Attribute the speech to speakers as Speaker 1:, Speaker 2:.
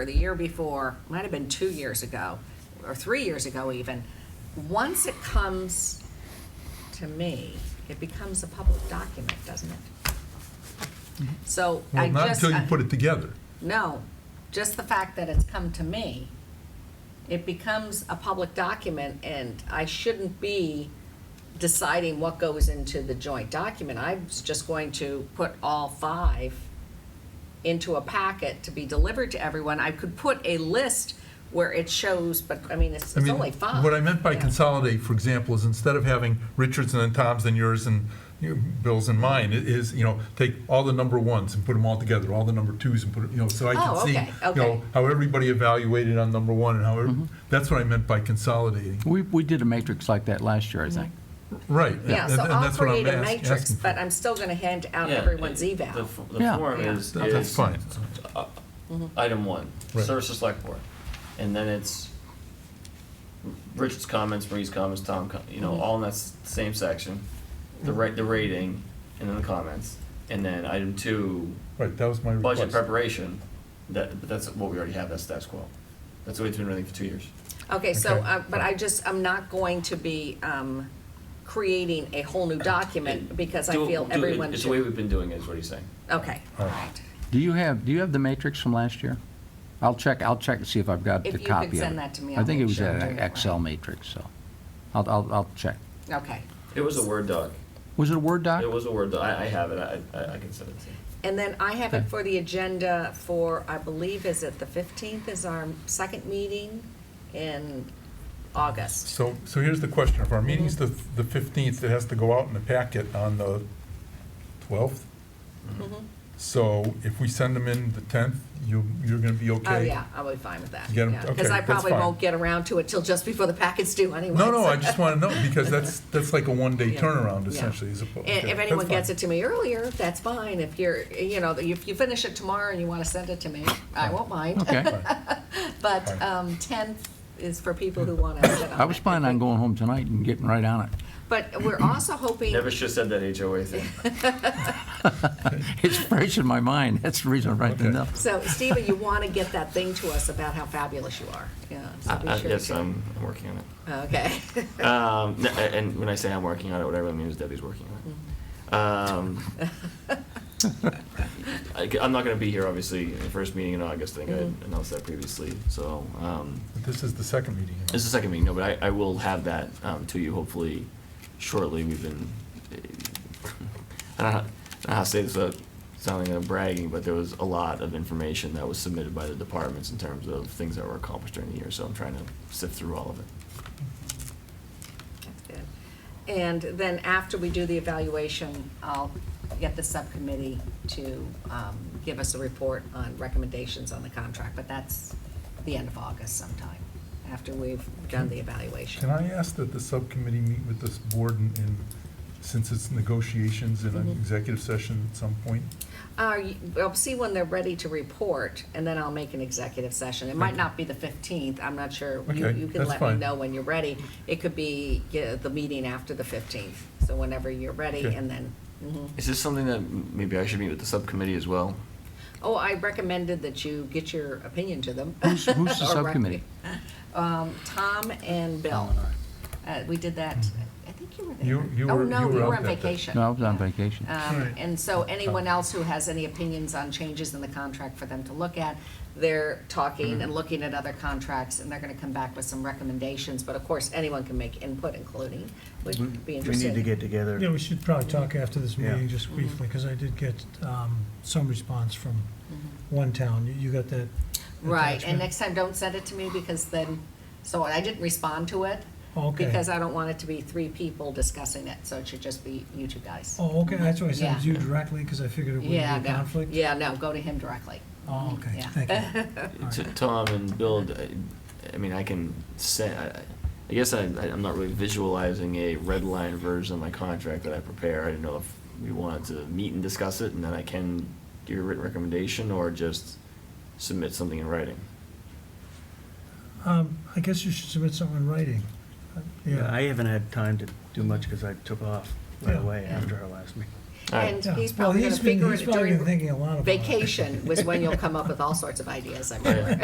Speaker 1: or the year before, might have been two years ago, or three years ago even, once it comes to me, it becomes a public document, doesn't it? So I
Speaker 2: Mm-hmm. Well,
Speaker 1: just.
Speaker 2: not until you
Speaker 1: I-
Speaker 2: put it together.
Speaker 1: No, just the fact that it's come to me, it becomes a public document, and I shouldn't be deciding what goes into the joint document. I was just going to put all five into a packet to be delivered to everyone. I could put a list where it shows, but, I mean, it's
Speaker 2: I
Speaker 1: it's
Speaker 2: mean,
Speaker 1: only five.
Speaker 2: What I meant by
Speaker 1: Yeah.
Speaker 2: consolidate, for example, is instead of having Richard's and then Tom's and yours and you know, Bill's and mine, it is, you know, take all the number ones and put them all together, all the number twos and put, it- you know, so I
Speaker 1: Oh,
Speaker 2: can see,
Speaker 1: okay,
Speaker 2: you
Speaker 1: okay.
Speaker 2: know, how everybody evaluated on number one and how, every- that's what I meant by consolidating.
Speaker 3: We, we did a matrix like that last year, I think.
Speaker 1: Mm-hmm.
Speaker 2: Right.
Speaker 1: Yeah,
Speaker 2: and-
Speaker 1: so
Speaker 2: and
Speaker 1: I'll
Speaker 2: that's what I'm
Speaker 1: create a
Speaker 2: ask-
Speaker 1: matrix,
Speaker 2: asking for.
Speaker 1: but I'm still gonna hand out
Speaker 4: Yeah,
Speaker 1: everyone's
Speaker 4: it- The
Speaker 1: eval.
Speaker 4: f- the
Speaker 3: Yeah.
Speaker 4: form
Speaker 1: Yeah. Mm-hmm.
Speaker 4: is,
Speaker 2: That- That's
Speaker 4: is
Speaker 2: fine.
Speaker 4: uh, item one,
Speaker 2: Right.
Speaker 4: service to select board. And then it's Richard's comments, Marie's comments, Tom, com- you
Speaker 1: Mm-hmm.
Speaker 4: know, all in that s- same section. The rate, the rating, and then the comments. And then item two,
Speaker 2: Right, that was my
Speaker 4: budget
Speaker 2: request.
Speaker 4: preparation, that, but that's what we already have, that's status quo. That's the way it's been running for two years.
Speaker 1: Okay, so,
Speaker 2: Okay.
Speaker 1: uh, but I just, I'm not going to be um, creating a whole new document because I
Speaker 4: Do it-
Speaker 1: feel
Speaker 4: do it-
Speaker 1: everyone
Speaker 4: It's the way
Speaker 1: should.
Speaker 4: we've been doing it, is what he's saying.
Speaker 1: Okay, all
Speaker 2: All right.
Speaker 1: right.
Speaker 3: Do you have, do you have the matrix from last year? I'll check, I'll check and see if I've got
Speaker 1: If you
Speaker 3: the
Speaker 1: could
Speaker 3: copy of it.
Speaker 1: send that to me,
Speaker 3: I
Speaker 1: I'll
Speaker 3: think it
Speaker 1: make
Speaker 3: was
Speaker 1: sure I'm
Speaker 3: an
Speaker 1: doing it right.
Speaker 3: Excel matrix, so I'll, I'll, I'll check.
Speaker 1: Okay.
Speaker 4: It was a Word doc.
Speaker 3: Was it a Word doc?
Speaker 4: It was a Word doc. I, I have it. I, I I can send it to you.
Speaker 1: And then I have it
Speaker 3: Okay.
Speaker 1: for the agenda for, I believe, is it the 15th is our second meeting in August?
Speaker 2: So, so here's the question, if our meeting's the, the fifteenth, it has to go out in the packet on the twelfth?
Speaker 1: Mhm.
Speaker 2: So if we send them in the tenth, you, you're gonna be okay?
Speaker 1: Oh, yeah, I'll be fine with that.
Speaker 2: You got 'em- okay,
Speaker 1: Because I
Speaker 2: that's
Speaker 1: probably
Speaker 2: fine.
Speaker 1: won't get around to it till just before the packet's due anyway.
Speaker 2: No, no,
Speaker 1: so-
Speaker 2: I just wanna know, because that's, that's like a one-day
Speaker 1: Yeah.
Speaker 2: turnaround
Speaker 1: Yeah.
Speaker 2: essentially, as opposed.
Speaker 1: And if anyone gets it to me earlier, that's fine. If you're, you know, if you finish it tomorrow and you want to send it to me, I won't mind.
Speaker 3: Okay.
Speaker 1: But
Speaker 2: Fine.
Speaker 1: um, 10th is for people who want to act on it.
Speaker 3: I was planning on going home tonight and getting right on it.
Speaker 1: But we're also hoping,
Speaker 4: Never should have said that HOA thing.
Speaker 3: It's fresh in my mind, that's the reason I'm writing it
Speaker 2: Okay.
Speaker 3: up.
Speaker 1: so Stephen, you want to get that thing to us about how fabulous you are. Yeah. so be
Speaker 4: Uh,
Speaker 1: sure
Speaker 4: Yes,
Speaker 1: to-
Speaker 4: I'm, I'm working on it.
Speaker 1: Okay.
Speaker 4: Um, n- a- and when I say I'm working on it, what I really mean is Debbie's working
Speaker 1: Mm.
Speaker 4: on it. Um, I, am not gonna be here, obviously, in the first meeting in August, I think
Speaker 1: Mm-hmm.
Speaker 4: I announced that previously, so, um,
Speaker 2: This is the second meeting. you know.
Speaker 4: this is the second meeting, no, but I, I will have that, um, to you hopefully shortly, we've been, I don't know, I don't know how to say this without sounding like I'm bragging, but there was a lot of information that was submitted by the departments in terms of things that were accomplished during the year, so I'm trying to sift through all of it.
Speaker 1: That's good. And then after we do the evaluation, I'll get the subcommittee to um, give us a report on recommendations on the contract, but that's the end of August sometime, after we've done the evaluation. Uh,
Speaker 2: Can I ask that the subcommittee meet with this board in, in, since it's negotiations in an
Speaker 1: Mhm.
Speaker 2: executive session at some point?
Speaker 1: Uh, you- I'll see when they're ready to report, and then I'll make an executive session. It might
Speaker 2: Okay.
Speaker 1: not be the 15th, I'm not sure. You-
Speaker 2: Okay,
Speaker 1: You can
Speaker 2: that's
Speaker 1: let me
Speaker 2: fine.
Speaker 1: know when you're ready. It could be yeah, the meeting after the 15th, so whenever you're ready,
Speaker 2: Okay.
Speaker 1: and then, mhm.
Speaker 4: Is this something that m- maybe I should meet with the subcommittee as well?
Speaker 1: oh, I recommended that you get your opinion to them.
Speaker 3: Who's- who's the
Speaker 1: Or rec-
Speaker 3: subcommittee?
Speaker 1: Um, Tom and Bill.
Speaker 3: Tom
Speaker 1: Uh, We did that, I think you were there.
Speaker 2: You- you
Speaker 1: Oh,
Speaker 2: were-
Speaker 1: no,
Speaker 2: you were
Speaker 1: you were
Speaker 2: out
Speaker 1: on
Speaker 2: that day.
Speaker 1: vacation.
Speaker 3: No, I was on
Speaker 1: Yeah.
Speaker 3: vacation.
Speaker 1: Um,
Speaker 2: Right.
Speaker 1: And so anyone else who has any opinions on changes in the contract for them to look at, they're
Speaker 2: Mm-hmm.
Speaker 1: talking and looking at other contracts, and they're gonna come back with some recommendations, but of course, anyone can make input, including, which
Speaker 5: We-
Speaker 1: would be
Speaker 5: We
Speaker 1: interesting.
Speaker 5: need to get together.
Speaker 6: Yeah, we should probably talk after this
Speaker 5: Yeah.
Speaker 6: meeting, just briefly, because I did get um, some response from one town. You- You got that?
Speaker 1: Right, and
Speaker 6: attachment?
Speaker 1: next time, don't send it to me, because then, so I didn't respond to it.
Speaker 6: Okay.
Speaker 1: Because I don't want it to be three people discussing it, so it should just be you two guys.
Speaker 6: Oh, okay, that's why I said it was
Speaker 1: Yeah.
Speaker 6: you directly, because I figured it would be
Speaker 1: Yeah,
Speaker 6: a
Speaker 1: no.
Speaker 6: conflict.
Speaker 1: Yeah, no, go to him directly.
Speaker 6: Oh, okay,
Speaker 1: Yeah.
Speaker 6: thank you. All
Speaker 4: To
Speaker 6: right.
Speaker 4: Tom and Bill, I- I mean, I can say, I, I- I guess I, I- I'm not really visualizing a red line version of my contract that I prepare. I didn't know if we wanted to meet and discuss it, and then I can give a written recommendation, or just submit something in writing.
Speaker 6: Um, I guess you should submit something in writing. Uh,
Speaker 5: Yeah, I
Speaker 6: Yeah.
Speaker 5: haven't had time to do much because I took off right
Speaker 6: Yeah.
Speaker 5: away
Speaker 1: Yeah.
Speaker 5: after our last meeting.
Speaker 4: All right.
Speaker 1: And
Speaker 6: Yeah.
Speaker 1: he's
Speaker 6: Well,
Speaker 1: probably gonna
Speaker 6: he's been-
Speaker 1: figure
Speaker 6: he's
Speaker 1: it
Speaker 6: probably been
Speaker 1: during
Speaker 6: thinking a lot about it.
Speaker 1: vacation was when you'll come up with all sorts of ideas, I'm
Speaker 4: Yeah.
Speaker 1: sure.